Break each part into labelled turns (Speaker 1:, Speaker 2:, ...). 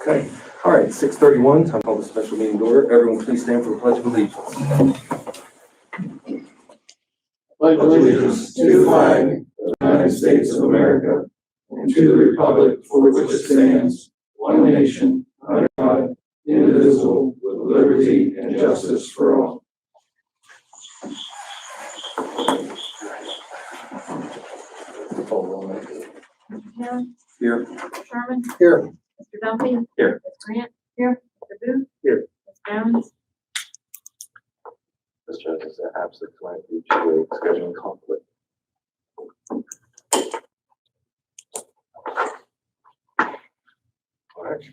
Speaker 1: Okay, all right, six thirty-one, time to call the special meeting to order. Everyone, please stand for the pledge of allegiance.
Speaker 2: pledge allegiance to the flag of the United States of America and to the republic for which it stands, one nation, under God, indivisible, with liberty and justice for all.
Speaker 1: Call roll, ma'am.
Speaker 3: Cam,
Speaker 1: Here.
Speaker 3: Sherman,
Speaker 1: Here.
Speaker 3: Mr. Duffy.
Speaker 1: Here.
Speaker 3: Ms. Grant. Here. Mr. Booth.
Speaker 1: Here.
Speaker 3: Ms. Jones.
Speaker 4: Mr. Joseph said absent tonight due to a scheduling conflict.
Speaker 1: All right.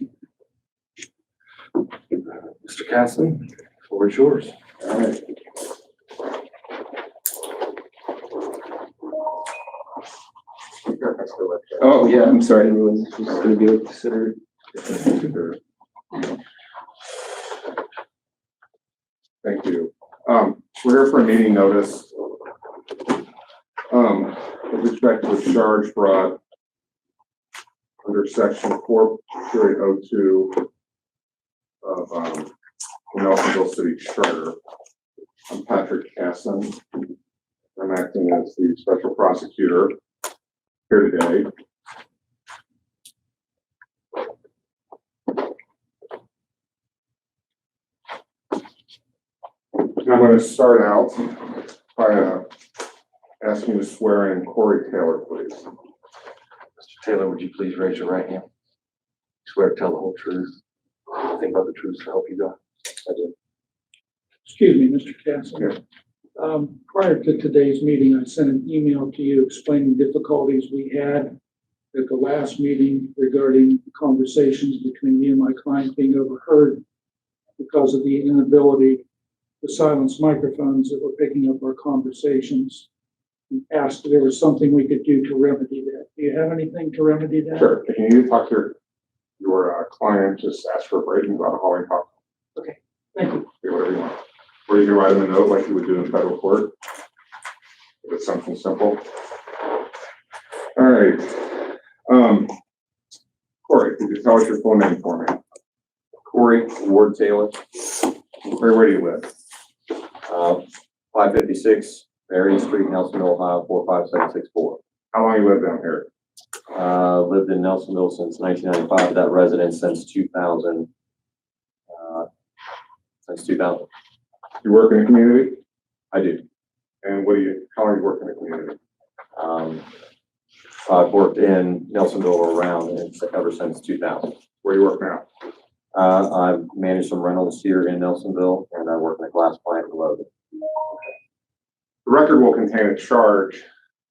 Speaker 1: Mr. Casson, floor is yours. All right.
Speaker 5: Oh, yeah, I'm sorry, everyone's just gonna be like considered. Thank you. Um, we're here for a meeting notice. Um, with respect to a charge brought under section four period oh two of, um, the Nelsonville City Charter. I'm Patrick Casson. I'm acting as the special prosecutor here today. And I'm going to start out by uh, asking you to swear in Corey Taylor, please.
Speaker 4: Mr. Taylor, would you please raise your right hand? Swear to tell the whole truth, nothing but the truth to help you God. I do.
Speaker 6: Excuse me, Mr. Castle. Um, prior to today's meeting, I sent an email to you explaining difficulties we had at the last meeting regarding conversations between me and my client being overheard because of the inability to silence microphones that were picking up our conversations. You Asked if there was something we could do to remedy that. Do you have anything to remedy that?
Speaker 5: Sure, if you need to talk to your, your uh, client, just ask for a break and go out hall and talk,
Speaker 6: Thank you.
Speaker 5: do whatever you want. Or you can write them a note like you would do in federal court. If it's something simple. All right. Um, Corey, could you tell us your full name for me?
Speaker 7: Corey Ward Taylor,
Speaker 5: Where, where do you live?
Speaker 7: Uh, five fifty-six Marion Street, Nelsonville, Ohio, four five seven six four.
Speaker 5: How long you live down here?
Speaker 7: Uh, lived in Nelsonville since nineteen ninety-five, that residence since two thousand. Since two thousand,
Speaker 5: You work in the community?
Speaker 7: I do.
Speaker 5: And what do you, how long you work in the community?
Speaker 7: Um, I've worked in Nelsonville around and it's ever since two thousand.
Speaker 5: Where you work now?
Speaker 7: Uh, I've managed some rentals here in Nelsonville and I work in a glass plant in Logan.
Speaker 5: The record will contain a charge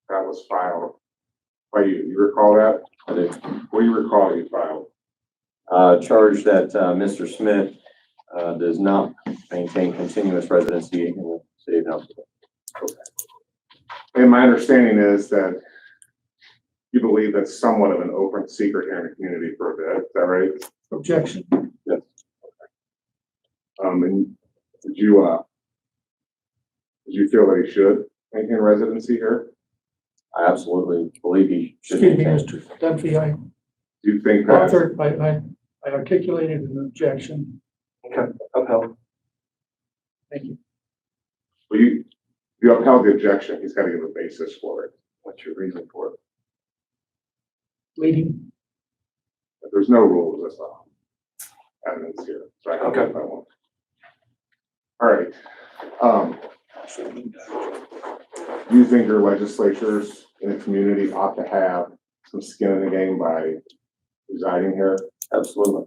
Speaker 5: that was filed by you. You recall that?
Speaker 7: I do
Speaker 5: What do you recall you filed?
Speaker 7: uh, charge that uh, Mr. Smith uh, does not maintain continuous residency in the city of Nelsonville.
Speaker 5: And my understanding is that you believe that's somewhat of an open secret here in the community for a bit. Is that right?
Speaker 6: Objection.
Speaker 5: Um, and did you, uh, did you feel that he should maintain residency here?
Speaker 7: I absolutely believe he should
Speaker 6: Excuse me,
Speaker 7: maintain.
Speaker 6: Mr. Dunphy, I
Speaker 5: Do you think that?
Speaker 6: Third, I, I, I articulated an objection.
Speaker 4: Upheld.
Speaker 6: Thank you.
Speaker 5: Well, you, you upheld the objection. He's got to give a basis for it.
Speaker 4: What's your reason for it?
Speaker 6: Leading,
Speaker 5: There's no rules that's all. Evidence here. So I can
Speaker 4: Okay.
Speaker 5: do what I want. All right. Um, do you think your legislatures in the community ought to have some skin in the game by residing here?
Speaker 7: Absolutely.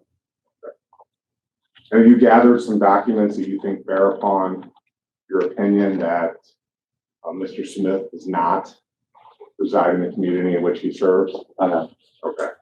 Speaker 5: Have you gathered some documents that you think bear upon your opinion that uh, Mr. Smith does not reside in the community in which he serves?
Speaker 7: I have.
Speaker 5: Okay.